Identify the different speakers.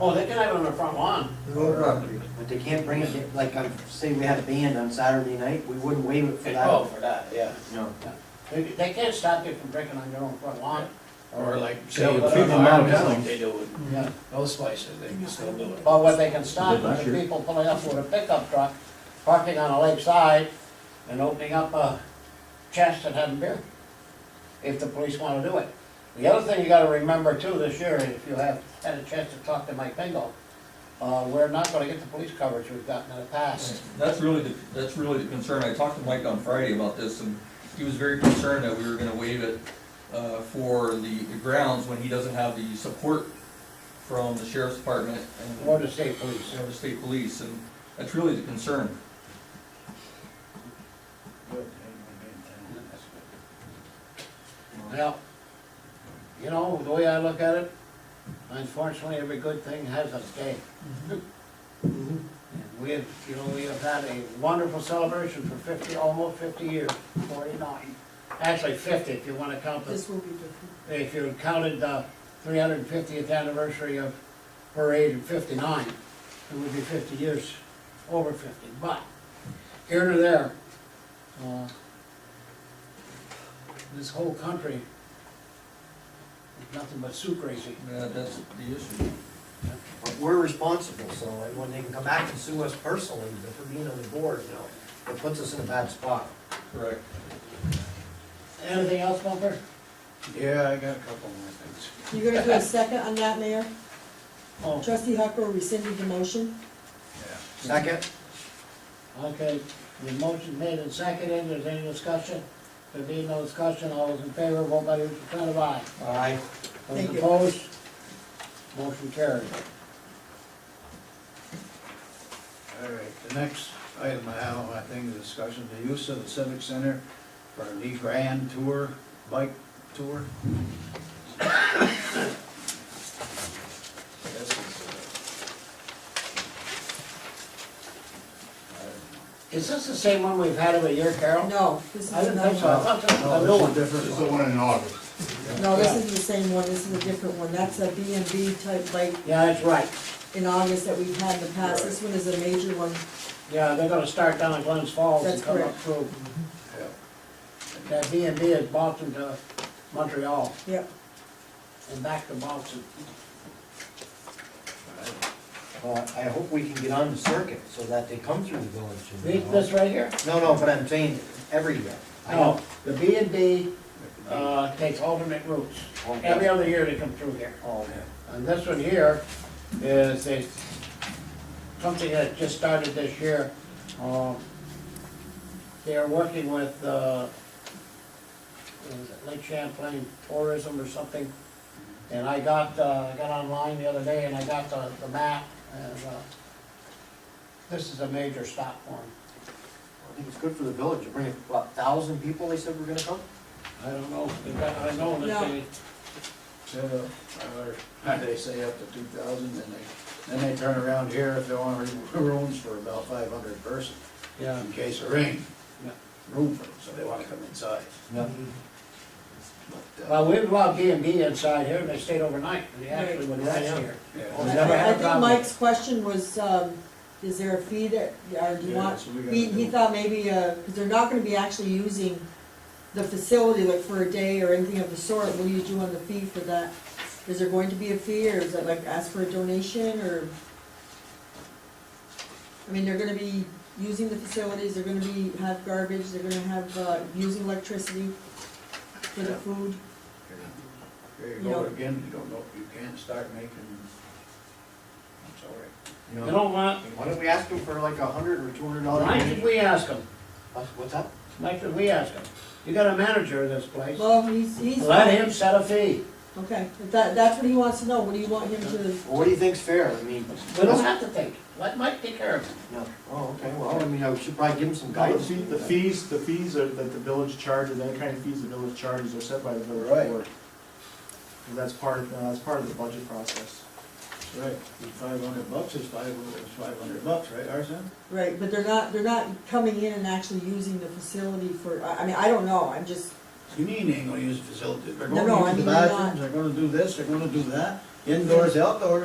Speaker 1: Oh, they can have it on their front lawn.
Speaker 2: No property.
Speaker 3: But they can't bring it, in- like, um, say we had a band on Saturday night, we wouldn't waive it for
Speaker 1: Oh,
Speaker 3: that.
Speaker 1: for that, yeah.
Speaker 3: No.
Speaker 1: They, they can't stop you from drinking on your own front lawn.
Speaker 4: Or like,
Speaker 1: Yeah,
Speaker 4: say,
Speaker 1: but
Speaker 4: if you
Speaker 1: people
Speaker 4: farm,
Speaker 5: now-
Speaker 4: like they do with
Speaker 1: Yeah.
Speaker 4: those places, they can still do it.
Speaker 1: But what they can stop
Speaker 5: Did last
Speaker 1: is the
Speaker 5: year.
Speaker 1: people pulling up with a pickup truck, parking on a lakeside, and opening up a chest and having beer, if the police wanna do it. The other thing you gotta remember too this year, if you have had a chance to talk to Mike Bingo, uh, we're not gonna get the police coverage we've gotten in the past.
Speaker 6: That's really, the that's really the concern. I talked to Mike on Friday about this, and he was very concerned that we were gonna waive it uh, for the the grounds when he doesn't have the support from the sheriff's department and
Speaker 1: Or the state police.
Speaker 6: you know, the state police, and that's really the concern.
Speaker 1: Well, you know, the way I look at it, unfortunately, every good thing has its day. And We have, you know, we have had a wonderful celebration for fifty, almost fifty years, forty-nine. Actually fifty, if you wanna count the,
Speaker 7: This will be different.
Speaker 1: if you counted the three hundred and fiftieth anniversary of parade in fifty-nine, it would be fifty years, over fifty, but here to there, uh, this whole country is nothing but soup crazy.
Speaker 6: Uh, That's the issue.
Speaker 3: But we're responsible, so like, when they can come back and sue us personally for being on the board, you know, it puts us in a bad spot.
Speaker 6: Correct.
Speaker 1: Anything else, Bumper?
Speaker 4: Yeah, I got a couple more things.
Speaker 7: You gonna do a second on that, Mayor?
Speaker 1: Oh,
Speaker 7: Trustee Hucker rescinded the motion.
Speaker 4: Yeah.
Speaker 3: Second?
Speaker 1: Oh, okay, the motion made and seconded, there's any discussion? There being no discussion, all those in favor, vote by your percent of aye.
Speaker 3: Aye.
Speaker 1: Those
Speaker 7: Thank you.
Speaker 1: opposed, motion carried.
Speaker 4: All right, the next item I have on my thing is discussion, the use of the civic center for the grand tour, bike tour. This is,
Speaker 1: Is this the same one we've had every year, Carol?
Speaker 7: No, this is
Speaker 1: I didn't think so, I
Speaker 7: another
Speaker 1: thought this
Speaker 4: uh,
Speaker 1: was a
Speaker 4: no,
Speaker 1: new one.
Speaker 4: this is different.
Speaker 5: It's the one in August.
Speaker 7: one. No, this is the same one, this is a different one. That's a B and B type, like
Speaker 1: Yeah, that's right,
Speaker 7: in August that we've had in the past. This one is a major one.
Speaker 1: yeah, they're gonna start down at Glens Falls and
Speaker 7: That's
Speaker 1: come up
Speaker 7: correct.
Speaker 1: through.
Speaker 4: Yeah.
Speaker 1: That B and B is Boston to Montreal
Speaker 7: Yep.
Speaker 1: and back to Boston.
Speaker 3: Well, uh, I hope we can get on the circuit so that they come through the village. you
Speaker 1: This,
Speaker 3: know.
Speaker 1: this right here?
Speaker 3: No, no, but I'm saying every year. I
Speaker 1: No,
Speaker 3: know.
Speaker 1: the B and B, uh, takes alternate routes. Every other year they come through here.
Speaker 3: Oh, okay.
Speaker 1: And this one here is a, something that just started this year. Um, They are working with, uh, what is it, Lake Champlain Tourism or something. And I got, uh, I got online the other day and I got the, the map and, uh, this is a major stop for 'em.
Speaker 3: I think it's good for the village, to bring, what, thousand people they said were gonna come?
Speaker 1: I don't know, They've got- I know that
Speaker 7: No.
Speaker 1: they,
Speaker 4: So, or, they say up to two thousand, and they, then they turn around here if they want rooms for about five hundred person,
Speaker 1: yeah.
Speaker 4: in case of rain.
Speaker 1: Yeah.
Speaker 4: Room for them, so they wanna come inside.
Speaker 3: No.
Speaker 4: But, uh,
Speaker 1: Well, we allowed B and B inside here, and they stayed overnight, and they actually went
Speaker 3: Right.
Speaker 1: right here.
Speaker 4: yeah.
Speaker 1: Well,
Speaker 7: I
Speaker 1: never had a
Speaker 7: I think
Speaker 1: problem.
Speaker 7: Mike's question was, um, is there a fee that, or do you
Speaker 4: Yeah,
Speaker 7: want,
Speaker 4: that's what we gotta
Speaker 7: he, he
Speaker 4: do.
Speaker 7: thought maybe, uh, cause they're not gonna be actually using the facility like for a day or anything of the sort, what do you do on the fee for that? Is there going to be a fee, or is it like ask for a donation, or? I mean, they're gonna be using the facilities, they're gonna be, have garbage, they're gonna have, uh, using electricity for the food.
Speaker 4: Here you
Speaker 7: You know.
Speaker 4: go again, you don't know, you can't start making, I'm sorry.
Speaker 1: You know what,
Speaker 3: Why don't we ask them for like a hundred or two hundred dollars?
Speaker 1: why did we ask them,
Speaker 3: What's what's that?
Speaker 1: why did we ask them? You got a manager of this place,
Speaker 7: Well, he's, he's.
Speaker 1: let him set a fee.
Speaker 7: Okay, if that, that's what he wants to know, what do you want him to?
Speaker 3: Well, what do you think's fair? I mean,
Speaker 1: We don't have to think, let Mike take care of it.
Speaker 3: no, oh, okay, well, I mean, I should probably give them some
Speaker 5: The
Speaker 3: guidance.
Speaker 5: fee- the fees, the fees are, that the village charges, any kind of fees the village charges are set by the village
Speaker 4: Right.
Speaker 5: board. And that's part, of- uh, that's part of the budget process.
Speaker 4: Right, five hundred bucks is five, is five hundred bucks, right, Arson?
Speaker 7: Right, but they're not, they're not coming in and actually using the facility for, I, I mean, I don't know, I'm just,
Speaker 4: You mean they ain't gonna use the facility, they're
Speaker 7: No, no, I
Speaker 4: gonna use the
Speaker 7: mean uh, they're
Speaker 4: bathrooms,
Speaker 7: not.
Speaker 4: they're gonna do this, they're gonna do that, indoors, outdoors,